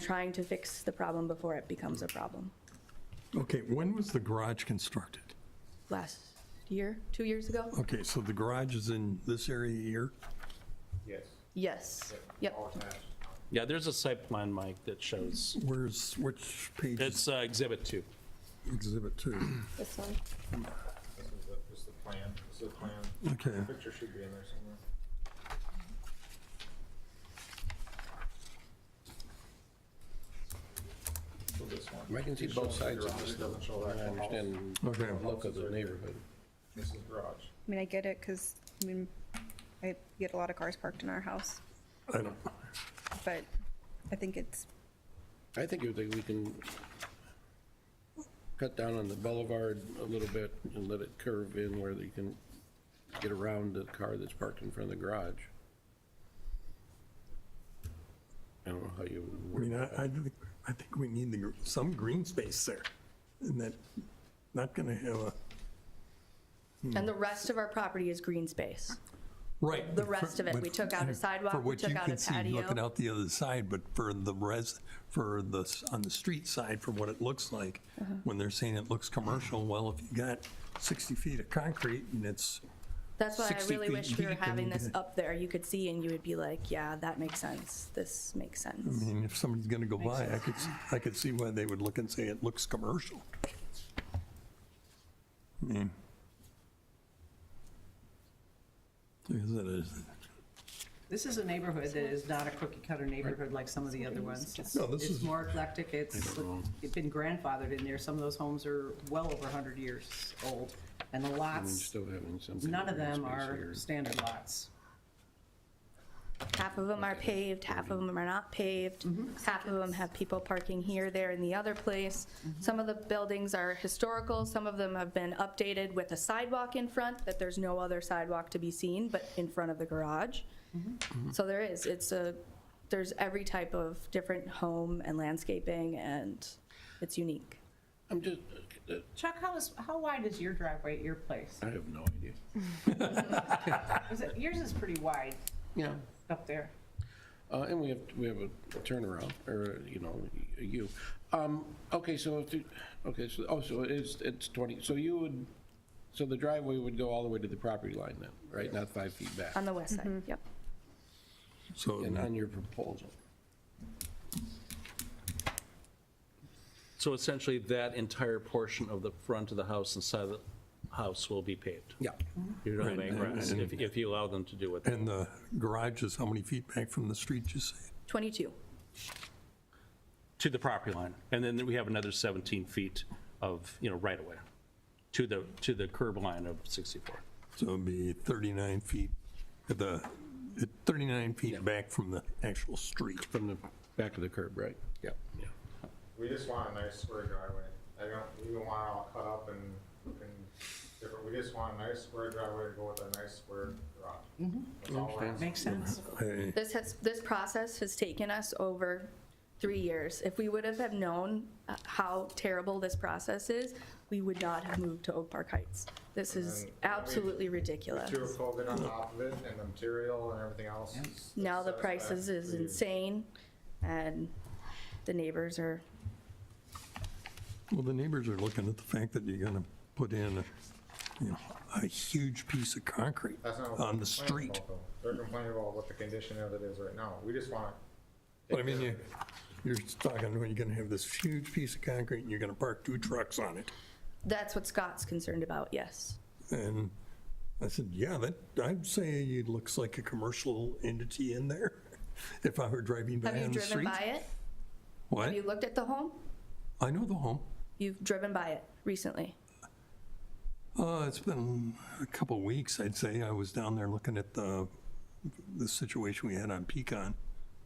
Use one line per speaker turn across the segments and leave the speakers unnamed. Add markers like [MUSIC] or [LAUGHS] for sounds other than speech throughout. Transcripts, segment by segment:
trying to fix the problem before it becomes a problem.
Okay, when was the garage constructed?
Last year, two years ago?
Okay, so the garage is in this area here?
Yes.
Yes, yep.
All attached.
Yeah, there's a site plan, Mike, that shows,
Where's, which page is
it's uh, Exhibit 2.
exhibit two?
This one.
This is the, this is the plan. This is the plan.
Okay,
Picture should be in there somewhere. So this one.
I can see both sides of this, though.
Doesn't show
I
that whole house.
understand
Okay.
the look of the neighborhood.
This is garage.
I mean, I get it, because, I mean, I get a lot of cars parked in our house,
I don't,
but I think it's,
I think you think we can cut down on the boulevard a little bit and let it curve in where they can get around the car that's parked in front of the garage. I don't know how you.
I mean, I, I think, I think we need the, gr- some green space there. And that, not gonna have a.
And the rest of our property is green space.
Right.
The rest of it, we took out a sidewalk, we took out a
For what you can see
patio.
looking out the other side, but for the res, for the, s- on the street side, for what it looks like,
Uh-huh.
when they're saying it looks commercial, well, if you got 60 feet of concrete and it's,
That's why I
60
really
feet
wish we were
deep and
having
you
this
get-
up there. You could see and you would be like, yeah, that makes sense. This makes
I
sense.
mean, if somebody's gonna go by, I could, s- I could see why they would look and say it looks commercial. I mean. Is it, is,
This is a neighborhood that is not a cookie cutter neighborhood like some of the other ones. It's-
No, this is-
It's more eclectic, it's, it's been grandfathered in there, some of those homes are well over 100 years old, and the lots,
Still having some.
none of them
space
are
here.
standard lots.
Half of them are paved, half of them are not paved. Half of them have people parking here, there, and the other place. Some of the buildings are historical, some of them have been updated with a sidewalk in front, that there's no other sidewalk to be seen but in front of the garage. So there is, it's a, there's every type of different home and landscaping, and it's unique.
I'm just,
Chuck, how is, how wide is your driveway at your place?
I have no idea.
Is it- Yours is pretty wide
Yeah.
up there.
Uh, and we have, we have a turnaround, or, you know, a U. Um, okay, so, if you- okay, so, oh, so it's, it's 20, so you would, so the driveway would go all the way to the property line then, right? Not five feet back,
On the west side, yep.
so,
and on your proposal.
So essentially, that entire portion of the front of the house and side of the house will be paved.
Yeah.
You don't have
Right,
any grass,
and-
if if you allow them to do it.
and the garage is how many feet back from the street, you say?
22.
To the property line. And then we have another 17 feet of, you know, right-of-way to the, to the curb line of 64.
So it'd be 39 feet, at the, at 39 feet back from the actual street.
From the back of the curb, right? Yeah.
We just want a nice square driveway. I don't, we don't want it all cut up and looking different. We just want a nice square driveway to go with a nice square garage.
Mm-hmm.
That's all we're asking.
Makes sense?
I-
This has, this process has taken us over three years. If we would have have known uh, how terrible this process is, we would not have moved to Oak Park Heights. This is absolutely ridiculous.
Two coated on top of it and the material and everything else. is-
Now the
that's-
prices is
that's-
insane, and the neighbors are,
Well, the neighbors are looking at the fact that you're gonna put in, a, you know, a huge piece of concrete
That's not what they're
on the
complaining
street.
about, though. They're complaining about what the condition of it is right now. We just want.
But I mean, you, you're talking, when you're gonna have this huge piece of concrete and you're gonna park two trucks on it.
that's what Scott's concerned about, yes.
And I said, yeah, that, I'd say it looks like a commercial entity in there [LAUGHS] if I were driving by
Have you
on the
driven
street.
by it?
What?
Have you looked at the home?
I know the home.
You've driven by it recently?
Uh, it's been a couple of weeks, I'd say. I was down there looking at the, the situation we had on Pecan.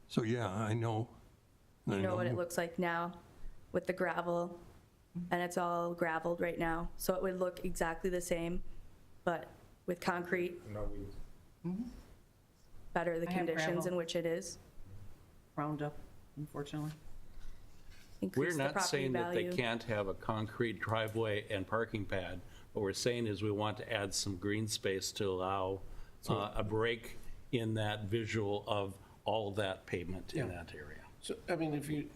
So yeah, I know. I
You know what it looks like now with the gravel, and it's all gravelled right now, so it would look exactly the same, but with concrete,
No, we.
better the
I have
conditions in
gravel.
which it is.
Roundup, unfortunately.
increase
We're
the
not
property
saying that they
value.
can't have a concrete driveway and parking pad. What we're saying is we want to add some green space to allow uh, a break in that visual of all that pavement in that area.
So, I mean, if you,